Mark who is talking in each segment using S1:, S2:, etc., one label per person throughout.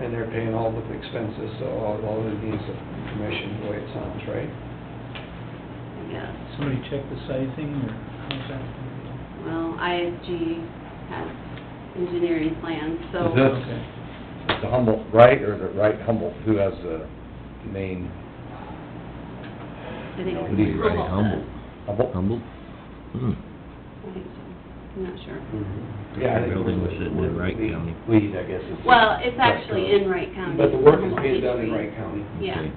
S1: and they're paying all the expenses, so all, all it needs is commission, the way it sounds, right?
S2: Yes.
S3: Somebody check the sizing or how's that?
S2: Well, ISG has engineering plans, so.
S4: Is this-
S3: Okay.
S4: Is the Humboldt right, or is it right Humboldt, who has the main
S2: I think
S4: No,
S2: it's
S4: it'd be
S2: Humboldt
S5: right,
S2: does.
S5: Humboldt.
S4: Humboldt?
S5: Humble? Hmm.
S2: I think so. I'm not sure.
S4: Yeah, I think
S5: Mm-hmm. Building was sitting in Wright
S4: Lead-
S5: County.
S4: Lead, I guess. is-
S2: Well, it's actually in Wright County.
S1: But the work is
S2: Humboldt
S1: being done in Wright
S2: District.
S1: County,
S2: Yeah.
S5: Okay.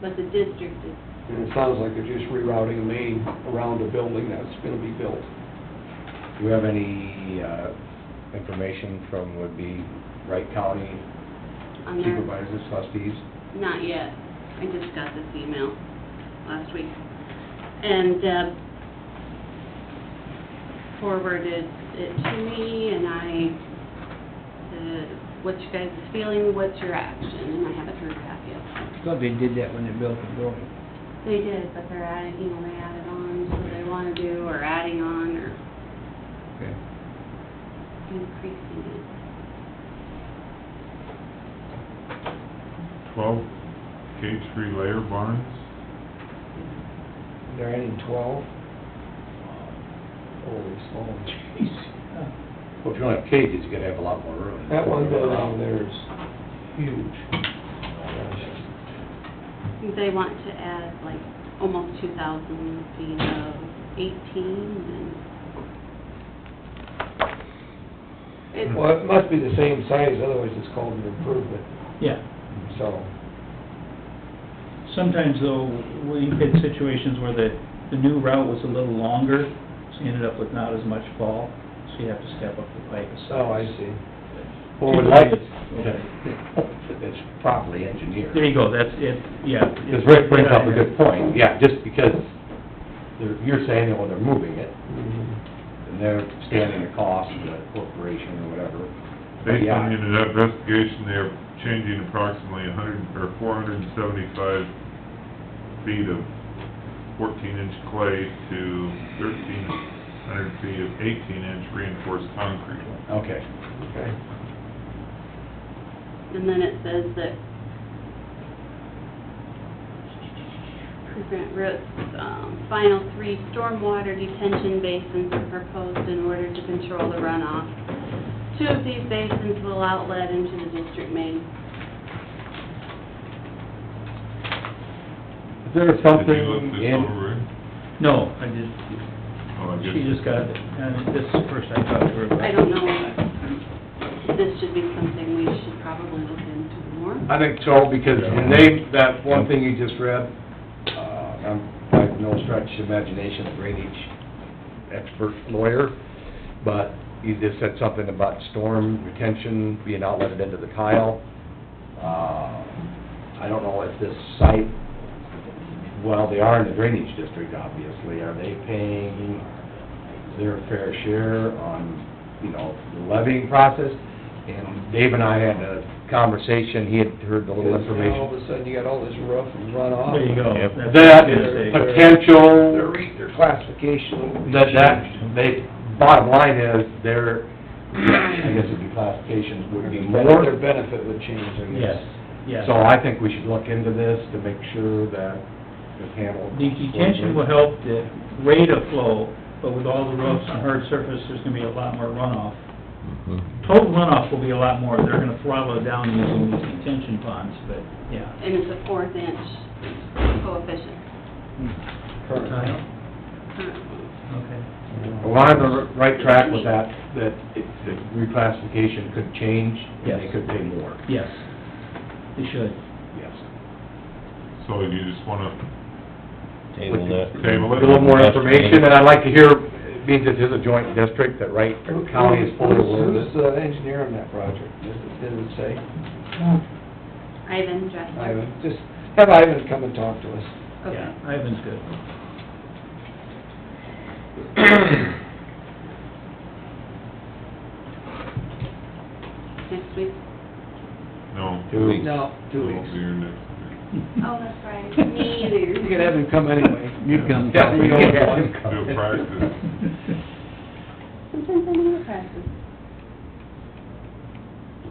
S2: But the district is,
S1: and it sounds like they're just rerouting a main around a building that's gonna be built.
S4: Do you have any, uh, information from, would be Wright County
S2: on there.
S4: supervisors, trustees?
S2: Not yet. I just got this email last week. And Deb forwarded it to me, and I said, what's your guys' feeling, what's your action? And I haven't heard back yet.
S3: Thought they did that when they built the building.
S2: They did, but they're adding, you know, they added on, so they wanna do, or adding on, or
S3: Okay.
S2: increasing it.
S6: twelve cage three layer barns.
S4: Oh,
S1: They're adding twelve? Holy smokes.
S4: Well, if you only have cages, you gotta have a lot more room.
S1: That one down there is huge.
S2: They want to add like almost two thousand feet of eighteen and. It's,
S1: Well, it must be the same size, otherwise it's called an improvement,
S3: Yeah.
S1: so.
S3: Sometimes though, we had situations where the, the new route was a little longer, so you ended up with not as much fall, so you have to step up the pipe a size.
S1: Oh, I see.
S4: Well, we'd like,
S3: Okay.
S4: it's properly engineered.
S3: There you go, that's it, yeah.
S4: Because Rick brings up a good point, yeah, just because they're, you're saying, well, they're moving it,
S1: Mm-hmm.
S4: and they're standing the cost of the corporation or whatever. But
S6: Based on
S4: yeah,
S6: an investigation, they are changing approximately hundred, or four hundred and seventy-five feet of fourteen-inch clay to thirteen hundred feet of eighteen-inch reinforced concrete.
S4: Okay,
S1: Okay.
S2: and then it says that President Root's, um, final three stormwater detention basins are proposed in order to control the runoff. Two of these basins will outlet into the district main.
S4: is there something
S6: Did you look this
S4: in,
S6: over?
S3: No, I just,
S6: Oh, I guess-
S3: she just got it, and this is the first I talked to her about.
S2: I don't know, this should be something we should probably look into more.
S4: I think so, because when they, that one thing you just read, uh, I'm by no stretch of imagination a drainage expert lawyer, but you just said something about storm retention being outletted into the tile. Uh, I don't know if this site, well, they are in the drainage district, obviously, are they paying their fair share on, you know, the levying process? And Dave and I had a conversation, he had heard the little
S1: Because now All
S4: information.
S1: of a sudden, you got all this roof and runoff.
S3: There you go.
S4: Yep.
S3: That's-
S4: That
S3: They're-
S4: is
S3: they're-
S4: potential,
S1: Their classification.
S4: that, that, they, bottom line is, their, I guess it'd be classifications would be more.
S1: Their benefit would change, I
S3: Yes,
S1: guess.
S3: yes.
S4: So I think we should look into this to make sure that it's handled.
S3: The detention will help the rate of flow, but with all the roofs and hard surface, there's gonna be a lot more runoff.
S1: Mm-hmm.
S5: Mhm.
S3: Total runoff will be a lot more, they're gonna throttle it down using these detention ponds, but, yeah.
S2: and it's a fourth inch coefficient. Mm-hmm.
S1: Current.
S3: Okay.
S4: Well, We're on the right track with that, that it- the reclassification could change, and they
S3: Yes.
S4: could pay more,
S3: Yes, they should.
S4: yes.
S6: So you just wanna
S5: Table that.
S6: Table
S4: A
S6: it.
S4: little more information, and I'd like to hear, being this is a joint district, that Wright County is fully aware of
S1: Who's
S4: this.
S1: the engineer on that project? Does it- does it say?
S2: Ivan Dressler.
S1: Ivan, just have Ivan come and talk to us.
S2: Okay.
S3: Yeah, Ivan's good.
S2: Next week.
S6: No.
S4: Two weeks.
S1: No, two
S6: It'll be
S1: weeks.
S6: your next meeting.
S2: Oh, that's right. Me either.
S1: You could have him come anyway.
S6: You come.
S4: Yeah, we
S1: You
S4: don't
S1: can have
S4: want
S1: him
S4: to
S6: Do a practice.